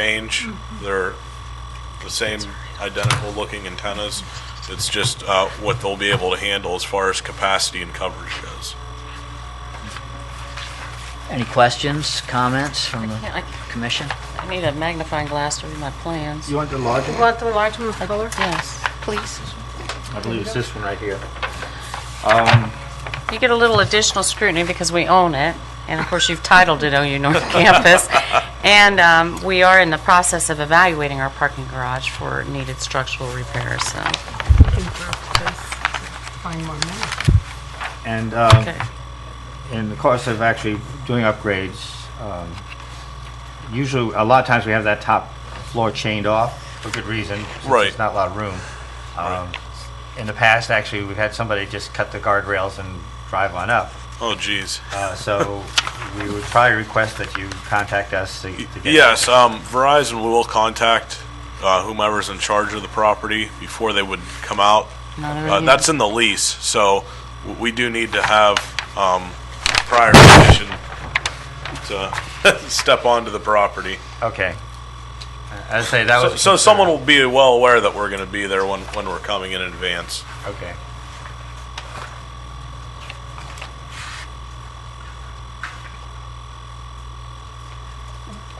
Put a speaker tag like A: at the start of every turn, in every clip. A: change. They're the same identical looking antennas. It's just uh, what they'll be able to handle as far as capacity and coverage goes.
B: Any questions, comments from
C: I can't-
B: the
C: I-
B: commission?
C: I need a magnifying glass to read my plans.
D: You want the larger?
E: You want the large one with
C: I-
E: color?
C: Yes.
E: Please.
F: I believe it's this one right here.
C: You get a little additional scrutiny because we own it, and of course, you've titled it OU North Campus. And um, we are in the process of evaluating our parking garage for needed structural repairs, so.
E: Find one now.
F: And um,
C: Okay.
F: in the course of actually doing upgrades, um, usually, a lot of times we have that top floor chained off for good reason. since
A: Right.
F: There's not a lot of room. Um, In the past, actually, we've had somebody just cut the guardrails and drive on up.
A: Oh, geez.
F: Uh, So we would probably request that you contact us to to get.
A: Yes, um, Verizon will contact uh, whomever's in charge of the property before they would come out.
C: Not
A: Uh,
C: already.
A: that's in the lease, so w- we do need to have, um, prior permission to step onto the property.
F: Okay. I'd say that
A: So,
F: was.
A: so someone will be well aware that we're gonna be there when, when we're coming in advance.
F: Okay.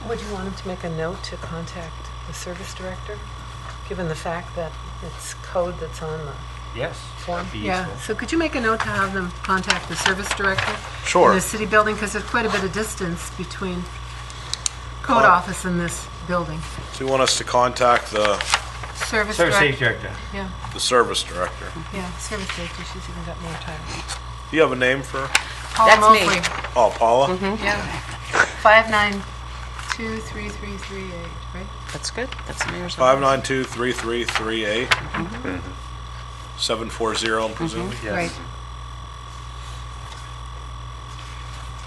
E: Would you want him to make a note to contact the service director, given the fact that it's code that's on the
F: Yes.
E: form?
F: that'd be
E: Yeah,
F: useful.
E: so could you make a note to have them contact the service director?
A: Sure.
E: In the city building, because there's quite a bit of distance between code
A: Oh.
E: office and this building.
A: So you want us to contact the,
E: Service
F: Service safety
E: director,
F: director.
E: yeah,
A: the service director?
C: Mm-hmm.
E: yeah, service director, she's even got more time.
A: Do you have a name for,
E: Paul
C: That's me.
E: Mobley,
A: oh, Paula?
C: Mm-hmm.
E: yeah. Five nine two three three three eight, right?
C: That's good. That's the mayor's.
A: Five nine two three three three eight.
C: Mm-hmm.
A: Seven four zero, I'm presuming.
E: Right.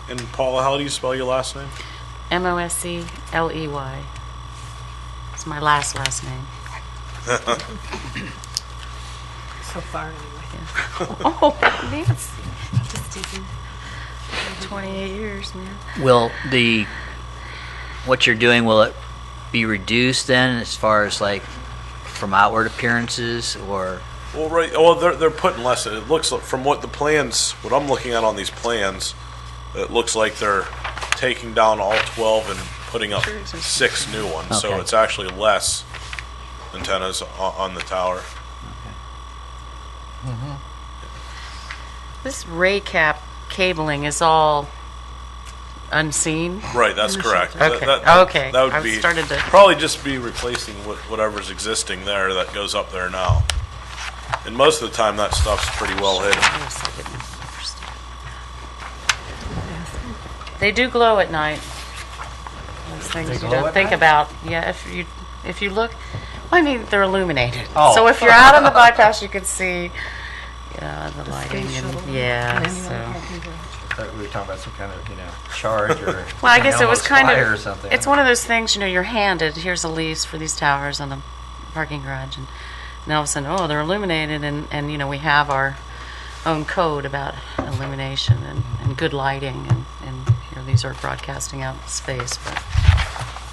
C: Mm-hmm.
A: And Paula, how do you spell your last name?
C: M-O-S-E-L-E-Y. E It's my last, last name.
E: So far, anyway.
C: Oh, Nancy. Just teasing. 28 years, man.
B: Will the, what you're doing, will it be reduced then as far as like from outward appearances or?
A: Well, right. Well, they're they're putting less. in. It looks like, from what the plans, what I'm looking at on these plans, it looks like they're taking down all 12 and putting up six new ones. So
B: Okay.
A: it's actually less antennas on, on the tower.
C: This raycap cabling is all unseen.
A: Right. That's correct. That-
C: Okay,
A: That, that-
C: okay.
A: That would
C: I
A: be
C: started to-
A: probably just be replacing what, whatever's existing there that goes up there now. And most of the time, that stuff's pretty well hidden.
C: Yes, I didn't understand. They do glow at night. Those things you
F: glow
C: don't
F: at
C: think
F: night?
C: about. Yeah, if you, if you look, well, I mean, they're illuminated.
F: Oh.
C: So if you're out on the bypass, you can see, yeah, the lighting
E: Space shuttle.
C: and,
E: And
C: yeah,
E: anyone
C: so.
E: can go.
F: Thought we were talking about some kind of, you know, charge or.
C: Well, I guess it
F: animal
C: was kind
F: fire Or
C: of,
F: something.
C: it's one of those things, you know, you're handed, here's the leaves for these towers on the parking garage, and, and all of a sudden, oh, they're illuminated, and, and, you know, we have our own code about illumination and, and good lighting, and, and, you know, these are broadcasting out in space, but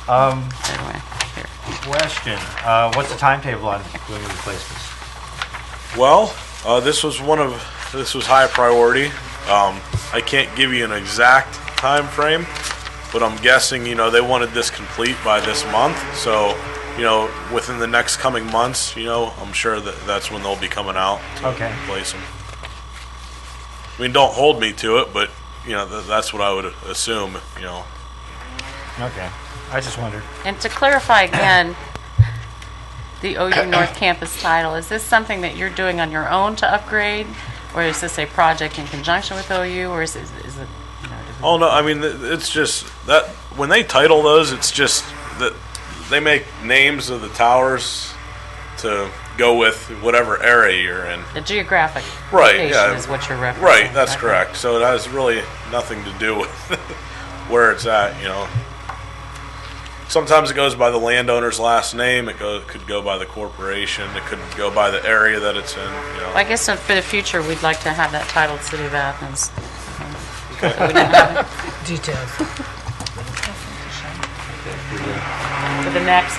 F: Um,
C: anyway, here.
F: question, uh, what's the timetable on doing the replacements?
A: Well, uh, this was one of this was high priority. Um, I can't give you an exact time frame, but I'm guessing you know they wanted this complete by this month. So, you know, within the next coming months, you know, I'm sure that that's when they'll be coming out to
F: Okay.
A: replace them. I mean, don't hold me to it, but you know th- that's what I would assume. You know,
F: Okay, I just wondered.
C: And to clarify again, the OU North Campus title, is this something that you're doing on your own to upgrade? Or is this a project in conjunction with OU, or is it, is it, you know, does it-
A: Oh no, I mean th- it's just that when they title those, it's just that they make names of the towers to go with whatever area you're in.
C: The geographic
A: Right,
C: location
A: yeah.
C: is what you're referencing.
A: Right, that's
C: okay.
A: correct. So it has really nothing to do with where it's at, you know. Sometimes it goes by the landowner's last name. It go, could go by the corporation. It could go by the area that it's in. You know.
C: I guess for the future, we'd like to have that titled City of Athens. So we don't have it.
E: Details.
C: for the next